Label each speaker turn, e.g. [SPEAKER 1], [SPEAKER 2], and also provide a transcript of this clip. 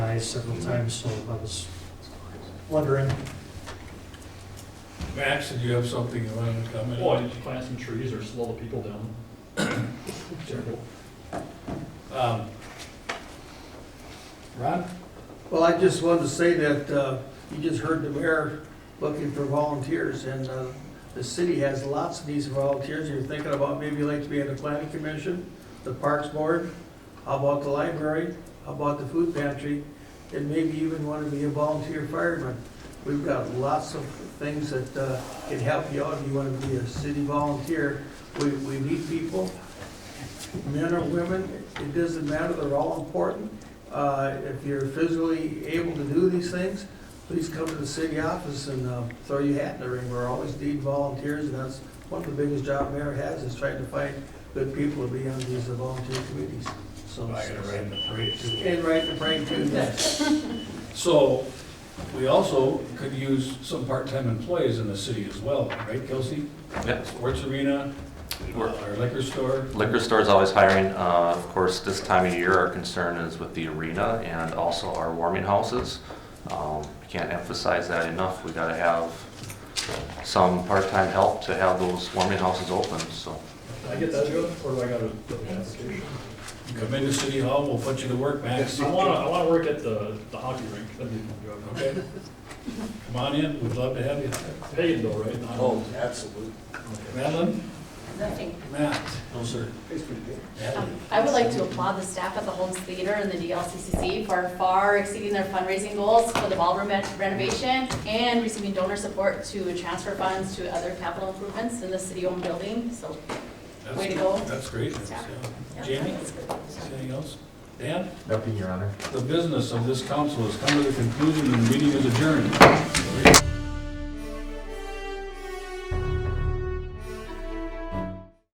[SPEAKER 1] eyes several times, so I was wondering.
[SPEAKER 2] Max, did you have something you wanted to comment?
[SPEAKER 3] Boy, did you plant some trees or slow the people down? Terrible.
[SPEAKER 2] Um, Ron?
[SPEAKER 4] Well, I just wanted to say that uh, you just heard the mayor looking for volunteers, and uh, the city has lots of these volunteers. You're thinking about maybe you'd like to be on the planning commission, the parks board, how about the library, how about the food pantry, and maybe even want to be a volunteer fireman. We've got lots of things that uh, can help you out if you want to be a city volunteer. We we need people, men or women, it doesn't matter, they're all important. Uh, If you're physically able to do these things, please come to the city office and uh, throw your hat in the ring. We're always need volunteers, and that's one of the biggest job mayor has, is trying to find good people to be on these volunteer committees. So,
[SPEAKER 2] the parade
[SPEAKER 4] And right the brain too, yes.
[SPEAKER 2] So, we also could use some part-time employees in the city as well, right, Kelsey?
[SPEAKER 5] Yeah.
[SPEAKER 2] Sports arena, uh,
[SPEAKER 5] We're-
[SPEAKER 2] our liquor store.
[SPEAKER 5] Liquor store is always hiring. Uh, Of course, this time of year, our concern is with the arena and also our warming houses. Um, I Can't emphasize that enough. We gotta have some part-time help to have those warming houses open, so.
[SPEAKER 3] Can I get that, Joe, or do I gotta put an application?
[SPEAKER 2] Come into City Hall, we'll put you to work, Max.
[SPEAKER 3] I wanna, I wanna work at the, the hockey rink, that'd be fun, Joe.
[SPEAKER 2] Okay? Come on in, we'd love to have you.
[SPEAKER 3] Paid though, right? Not-
[SPEAKER 6] absolutely.
[SPEAKER 2] Madeline?
[SPEAKER 7] Nothing.
[SPEAKER 2] Matt? No, sir.
[SPEAKER 6] It's pretty good.
[SPEAKER 7] Um, I would like to applaud the staff at the Holmes Theater and the DLCCC for far exceeding their fundraising goals for the ballroom renovation and receiving donor support to transfer funds to other capital improvements in the city-owned building, so.
[SPEAKER 2] That's
[SPEAKER 7] Way to
[SPEAKER 2] good.
[SPEAKER 7] go.
[SPEAKER 2] That's great. That's,
[SPEAKER 7] Yeah.
[SPEAKER 2] yeah.
[SPEAKER 7] yeah,
[SPEAKER 2] Jamie,
[SPEAKER 7] that's good.
[SPEAKER 2] anything else? Dan?
[SPEAKER 5] Nothing, Your Honor.
[SPEAKER 2] The business of this council has come to the conclusion and the meeting is adjourned.